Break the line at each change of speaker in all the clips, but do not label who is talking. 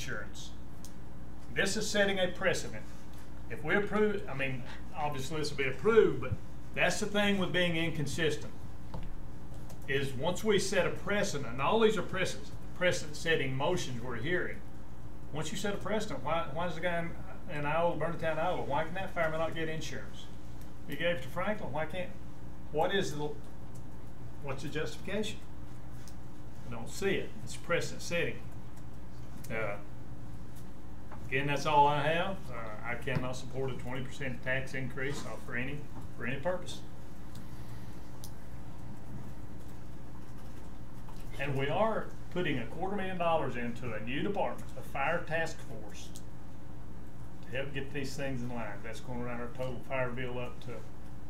insurance. This is setting a precedent. If we approve, I mean, obviously this will be approved, but that's the thing with being inconsistent. Is once we set a precedent, and all these are precedent, precedent-setting motions we're hearing. Once you set a precedent, why, why does the guy in, in Iowa, Burnetown, Iowa, why can that fireman not get insurance? You gave it to Franklin, why can't, what is the, what's the justification? I don't see it. It's precedent setting. Uh, Again, that's all I have. Uh, I cannot support a twenty percent tax increase uh, for any, for any purpose. And we are putting a quarter million dollars into a new department, a fire task force, to help get these things in line. That's gonna run our total fire bill up to,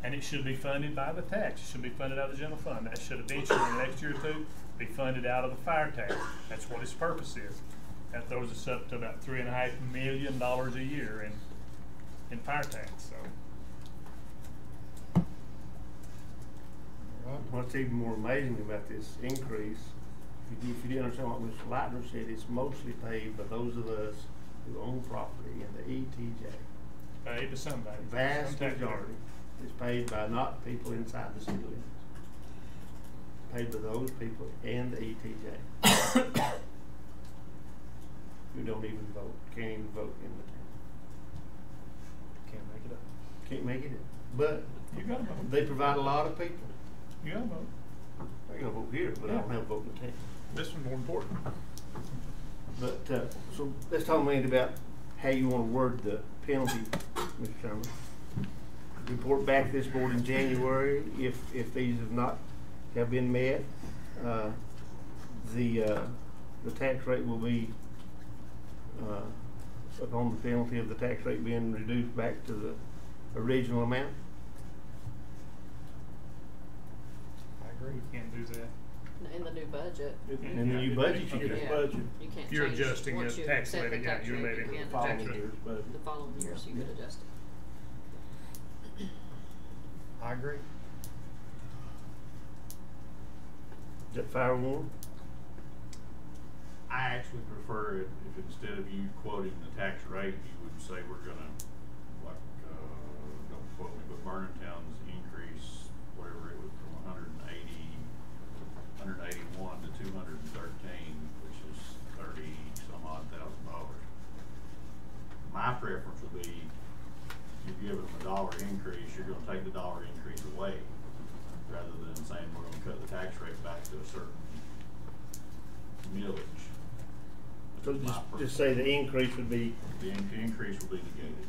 and it should be funded by the tax. It should be funded out of the general fund. That should eventually, in the next year or two, be funded out of the fire tax. That's what its purpose is. That throws us up to about three and a half million dollars a year in, in fire tax, so.
What's even more amazing about this increase, if you, if you didn't understand what Mr. Lightner said, it's mostly paid by those of us who own property in the ETJ.
Paid to uh, somebody.
The
Some
vast
tax
majority is paid by not people inside the city limits. Paid by those people and the E ETJ. Who don't even vote, can't even vote in the town,
Can't make it up.
can't make it in. But
You got a vote.
they provide a lot of people.
You got a vote.
They're gonna vote here, but I don't have a vote in the town.
This one's more important.
But, uh, so let's talk a minute about how you wanna word the penalty, Mr. Chairman. Report back to this board in January if, if these have not, have been met. Uh, The, uh, the tax rate will be, uh, upon the penalty of the tax rate being reduced back to the original amount.
I agree. You can't do that.
In the new budget.
Yeah.
And the new budget, you
Yeah.
get
Yeah.
budget.
You can't
You're
change-
adjusting
once
the
you
tax
set the
levy, yeah,
tax
you're
rate,
making
you
it
can't
fall
adjust
Tax
following year's budget.
The following year, so you could adjust it.
I agree.
Is that oh fair warrant?
I actually prefer it if instead of you quoting the tax rate, you would say we're gonna, like, uh, don't quote me, but Vernon Town's increase, whatever it was from hundred and eighty, hundred and eighty-one to two hundred and thirteen, which is thirty some odd thousand dollars. My preference would be, you're giving them a dollar increase, you're gonna take the dollar increase away, rather than saying we're gonna cut the tax rate back to a certain millage.
So just, just say the increase would be
The in- the increase will be negated.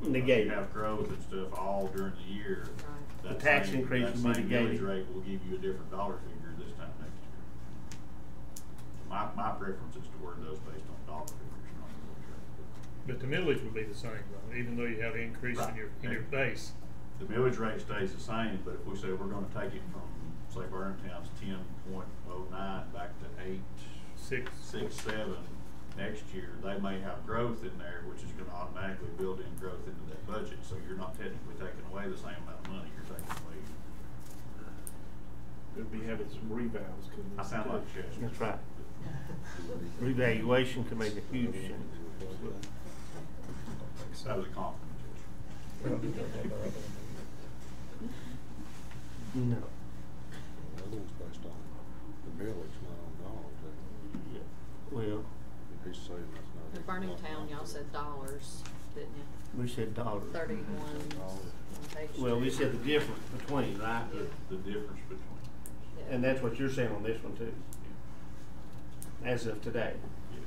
negated.
You have growth and stuff all during the year.
Right.
that
The tax
same-
increase will be
That same
negated.
millage rate will give you a different dollar figure this time next year. My, my preference is to word those based on dollar figures, not millage rate.
But the millage would be the same, though, even though you have an increase in your, in your base.
The millage rate stays the same, but if we say we're gonna take it from, say, Vernon Town's ten point oh nine back to eight,
Six,
six, seven next year, they may have growth in there, which is gonna automatically build in growth into that budget, so you're not technically taking away the same amount of money, you're taking away,
It'd be having some rebounds, couldn't it?
I sound like Chester.
That's right. Revaluation can make a huge change.
That was a compliment, Chester.
No.
The other one's based on the millage, not on dollars, that,
Well,
he's saying that's not.
The Burning Town, y'all said dollars, didn't you?
we said dollars.
Thirty-one on page
Well, we
two.
said the difference between, right?
The difference between,
Yeah.
And that's what you're saying on this one too,
yeah,
as of today.
yes.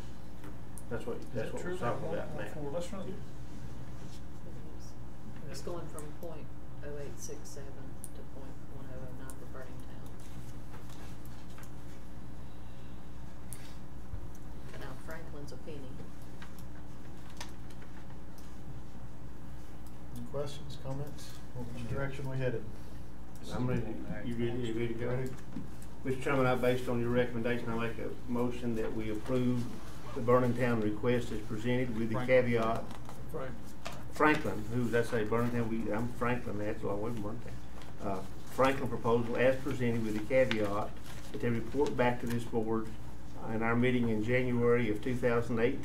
That's what,
is
that's
that
what
true?
we're talking about
One, four,
now.
Let's run it.
It's going from point oh eight six seven to point one oh oh nine for Burning Town. Now Franklin's a penny.
Any questions, comments? Which direction we headed?
I'm ready, you ready, you ready to go? Mr. Chairman, I, based on your recommendation, I make a motion that we approve the Burning Town request as presented with the
Franklin.
caveat
Right.
Franklin, who, did I say Burlington, we, I'm Franklin, that's a long way from Burlington. Uh, Franklin proposal as presented with the caveat that they report back to this board in our meeting in January of two thousand eighteen